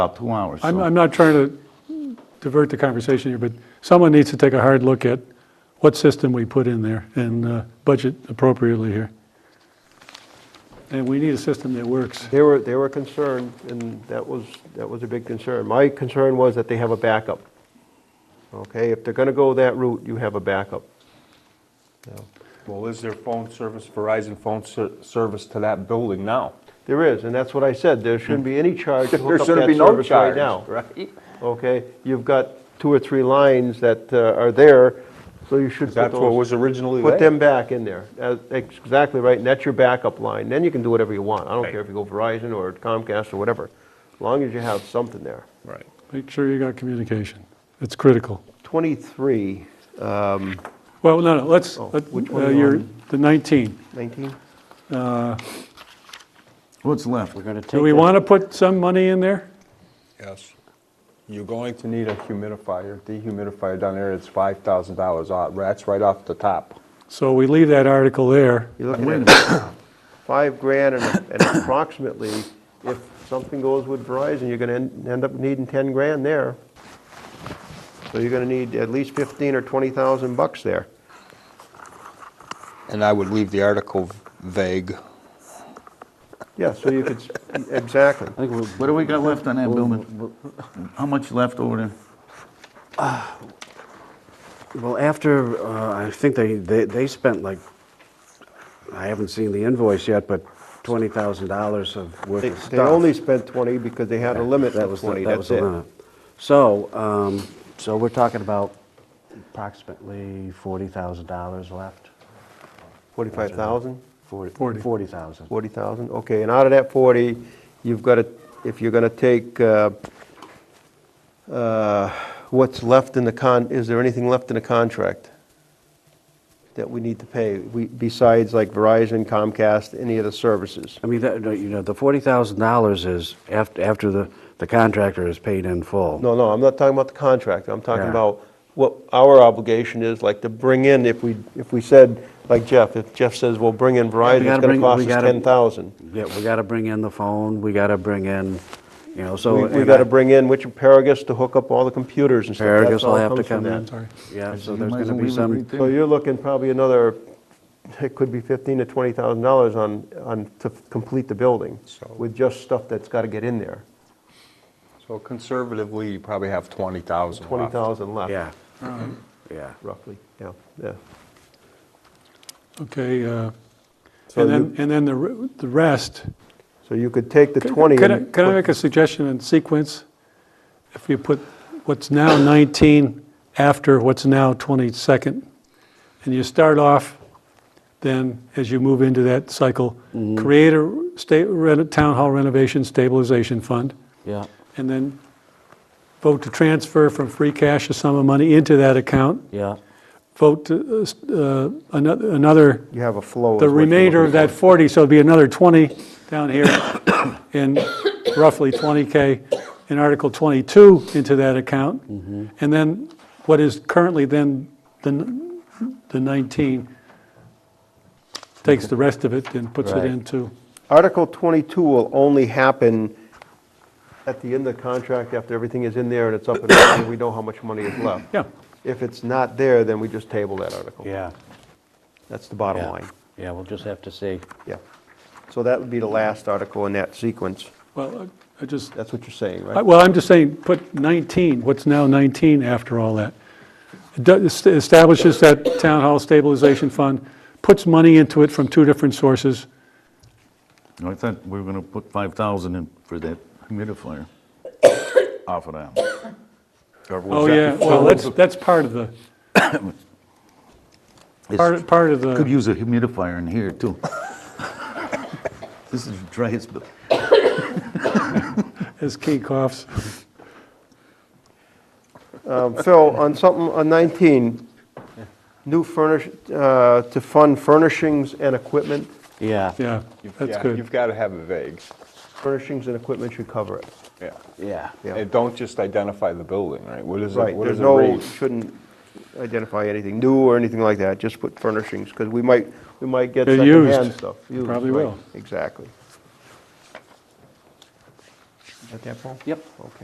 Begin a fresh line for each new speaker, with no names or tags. about two hours.
I'm,
so-
I'm not trying to divert the conversation here, but someone needs to take a hard look at what system we put in there and uh, budget appropriately here. And we need a system that works.
They were, they were concerned, and that was, that was a big concern. My concern was that they have a backup. Okay, if they're gonna go that route, you have a backup. Now,
Well, is there phone service, Verizon phone ser- service to that building now?
There is, and that's what I said, there shouldn't be any charge to
There
hook up
shouldn't
that
be no
service
charge,
right now.
right?
Okay, you've got two or three lines that uh, are there, so you should put
That's what was
those,
originally
put
there.
them back in there. Uh, Exactly right, and that's your backup line, then you can do whatever you want. I don't
Right.
care if you go Verizon or Comcast or whatever, as long as you have something there.
Right.
Make sure you got communication. It's critical.
23, um,
Well, no, no, let's,
Oh,
let-
which
uh,
one are you
you're,
on?
the 19.
19?
What's left?
We're going to take.
Do we
that-
want to put some money in there?
Yes. You're going to need a humidifier, dehumidifier down there, it's $5,000 off, that's right off the top.
So we leave that article there.
You're
Wait a
looking
minute.
at five grand and and approximately, if something goes with Verizon, you're gonna en- end up needing 10 grand there. So you're gonna need at least 15 or 20,000 bucks there.
And I would leave the article vague.
Yeah, so you could, s- exactly.
I think we'll-
What do we got left on that building? How much left over there?
Well, after, uh, I think they, they they spent like, I haven't seen the invoice yet, but $20,000 of worth
They
of
they
stuff.
only spent 20 because they had a limit
That
of
was,
20,
the- that was
that's
the
it.
limit. So, um, so we're talking about approximately $40,000 left.
45,000?
Forty.
$40,000.
40,000, okay, and out of that 40, you've got to, if you're going to take uh, uh, what's left in the con, is there anything left in the contract that we need to pay, We- besides like Verizon, Comcast, any of the services?
I mean, that, you know, the $40,000 is after, after the, the contractor is paid in full.
No, no, I'm not talking about the contract, I'm talking
Yeah.
about what our obligation is, like to bring in, if we, if we said, like Jeff, if Jeff says, well, bring in Verizon,
gotta
it's going to
bring-
cost
we
us
gotta-
10,000.
Yeah, we gotta bring in the phone, we gotta bring in, you know, so.
We- We
and
got to
I-
bring in which Paragus to hook up all the computers and stuff. That's
Paragus will
all
have to
comes from
come
that.
in.
Sorry.
Yeah, so
You
there's
might as well
gonna be
leave it
some,
right there.
So you're looking probably another, it could be fifteen to twenty thousand dollars on, on, to complete the building
So-
with just stuff that's got to get in there.
So conservatively, you probably have 20,000 left.
Twenty thousand left.
yeah, yeah.
Roughly, yeah, yeah.
Okay, uh,
So
and then,
you-
and then the re- the rest.
So you could take the
Can-
twenty.
Can I,
and
can I
put-
make a suggestion in sequence? If you put what's now 19 after what's now 22nd, and you start off, then, as you move into that cycle,
Mm-hmm.
create a state, reno- town hall renovation stabilization fund,
Yeah.
and then vote to transfer from free cash a sum of money into that account,
Yeah,
vote to, uh, s- uh, another, another
You have a flow. is
the
what you're
remainder of
looking
that
for.
40, so it'd be another 20 down here, and roughly 20K in Article 22 into that account. And then what is currently then the n- the 19 takes the rest of it and puts it
Right.
into,
Article twenty-two will only happen at the end of the contract after everything is in there and it's up and running, we know how much money is left.
yeah,
If it's not there, then we just table that article.
yeah.
That's the bottom
yeah.
line.
Yeah, we'll just have to see.
Yeah. So that would be the last article in that sequence.
well, I I just,
That's what you're saying,
I-
right?
well, I'm just saying, put 19, what's now 19 after all that. It does- est- Establishes that town hall stabilization fund, puts money into it from two different sources,
I thought we were gonna put 5,000 in for that humidifier off of that. Or was
Oh,
that
yeah,
before?
well, that's, that's part of the, part, of- part of
Could
the,
use a humidifier in here, too. This is the driest, bu-
as Kate coughs.
Um, Phil, on something, on 19, new furnish, uh, to fund furnishings and equipment,
Yeah,
yeah,
You've-
that's
yeah,
good.
You've got to have it vague,
furnishings and equipment should cover it.
yeah.
yeah.
Yeah.
And don't just identify the building, right? What is it,
Right,
what
there's
does it
no,
read?
shouldn't identify anything new or anything like that, just put furnishings, because we might, we might get
They're
secondhand
used.
stuff.
Probably
right,
will.
Exactly.
at that point?
Yep.
Okay.